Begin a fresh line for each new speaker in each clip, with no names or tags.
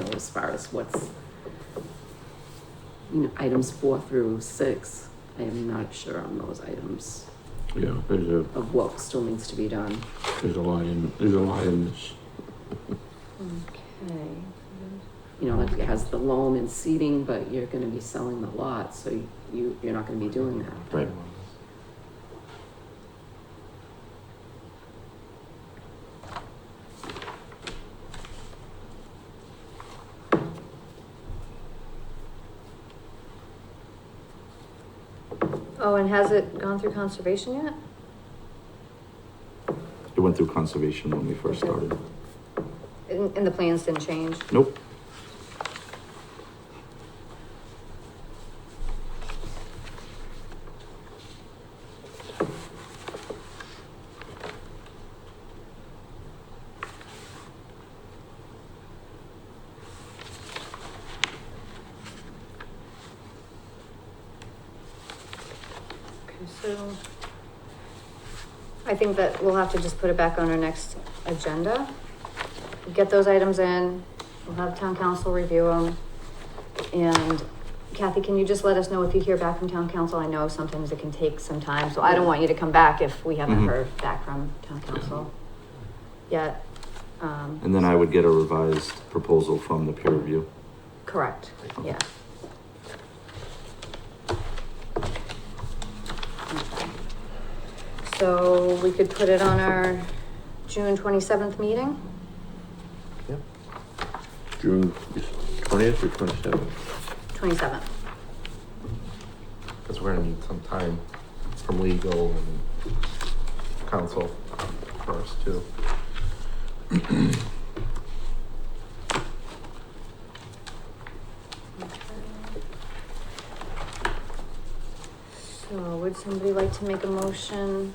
as far as what's, you know, items four through six. I am not sure on those items
Yeah, there's a,
of what still needs to be done.
there's a lot in, there's a lot in this.
Okay. You know, like it has the loan and seating, but you're gonna be selling the lot, so you, you're not gonna be doing that.
Right.
Oh, and has it gone through conservation yet?
It went through conservation when we first started.
And, and the plans didn't change?
Nope,
Okay, so. I think that we'll have to just put it back on our next agenda. Get those items in, we'll have town council review them. And Kathy, can you just let us know if you hear back from town council? I know sometimes it can take some time, so I don't want you to come back if we haven't
Mhm.
heard back from town council yet. Um,
and then I would get a revised proposal from the peer review.
Correct, yeah. So we could put it on our June twenty-seventh meeting?
Yep. June twentieth or twenty-seventh?
Twenty-seventh.
Because we're gonna need some time from legal and council first too.
So would somebody like to make a motion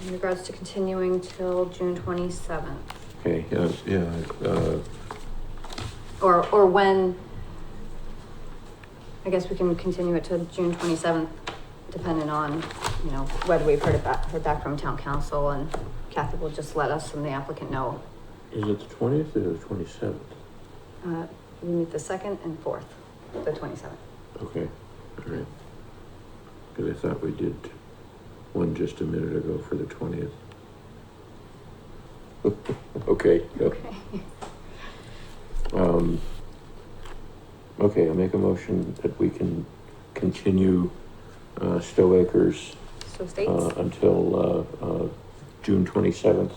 in regards to continuing till June twenty-seventh?
Okay, yeah, yeah, uh,
Or, or when? I guess we can continue it to June twenty-seventh, depending on, you know, whether we've heard it back, heard back from town council and Kathy will just let us and the applicant know.
is it the twentieth or the twenty-seventh?
Uh, we meet the second and fourth, the twenty-seventh.
Okay, all right. Cause I thought we did one just a minute ago for the twentieth. Okay, yep.
Okay.
Um, okay, I'll make a motion that we can continue, uh, Stowe Acres,
So
uh,
states?
until, uh, uh, June twenty-seventh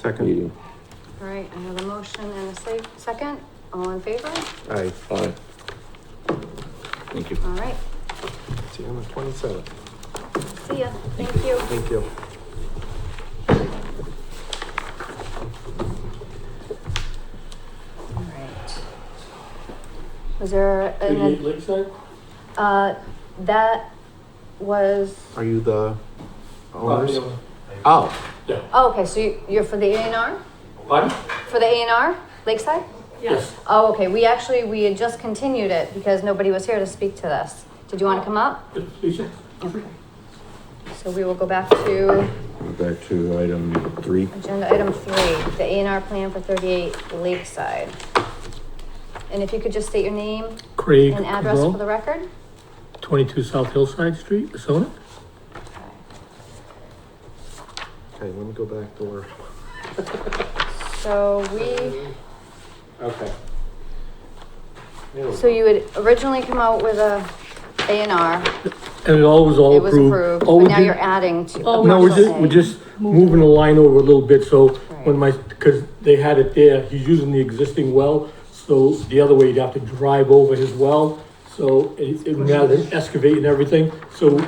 Second.
meeting.
All right, I have a motion and a se- second. All in favor?
Aye.
Aye.
Thank you.
All right,
See you on the twenty-seventh.
see ya. Thank you.
Thank you.
All right. Was there an,
Lakeside?
uh, that was,
Are you the owners?
Pardon?
Oh,
oh, okay, so you- you're for the A and R? For the A and R, Lakeside?
Yes.
Oh, okay, we actually, we had just continued it because nobody was here to speak to this. Did you want to come up?
Lisa?
Okay. So we will go back to
We're back to item three.
agenda item three, the A and R plan for thirty-eight Lakeside. And if you could just state your name
Craig
and address for
Cabral,
the record?
twenty-two South Hillside Street, Arizona.
okay, let me go back to where.
So we,
Okay. There we
so
go.
you had originally come out with a A and R,
And it all was all
it was
approved.
approved,
All
but
we
now
did-
you're adding to. a
No, we're
parcel
just,
A.
we're just moving the line over a little bit, so when my, because they had it there, he's using the existing well, so the other way, you'd have to drive over his well, so it, it- rather than excavate and everything, so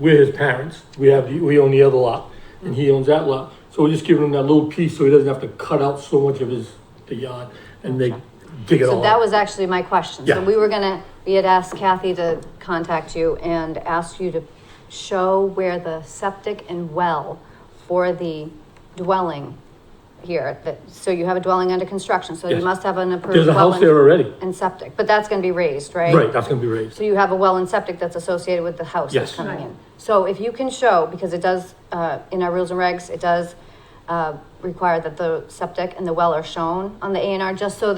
we're his parents, we have, the we own the other lot, and he owns that lot, so we're just giving him that little piece, so he doesn't have to cut out so much of his, the yard, and they dig it all
So that
up.
was actually my question. So
Yeah.
we were gonna, we had asked Kathy to contact you and ask you to show where the septic and well for the dwelling here, that, so you have a dwelling under construction, so you
Yes.
must have an approved
There's a
well
house there
and-
already,
and septic, but that's gonna be raised, right?
right, that's gonna be raised,
So you have a well and septic that's associated with the house that's
Yes.
coming in. So if you can show, because it does, uh, in our rules and regs, it does, uh, require that the septic and the well are shown on the A and R, just so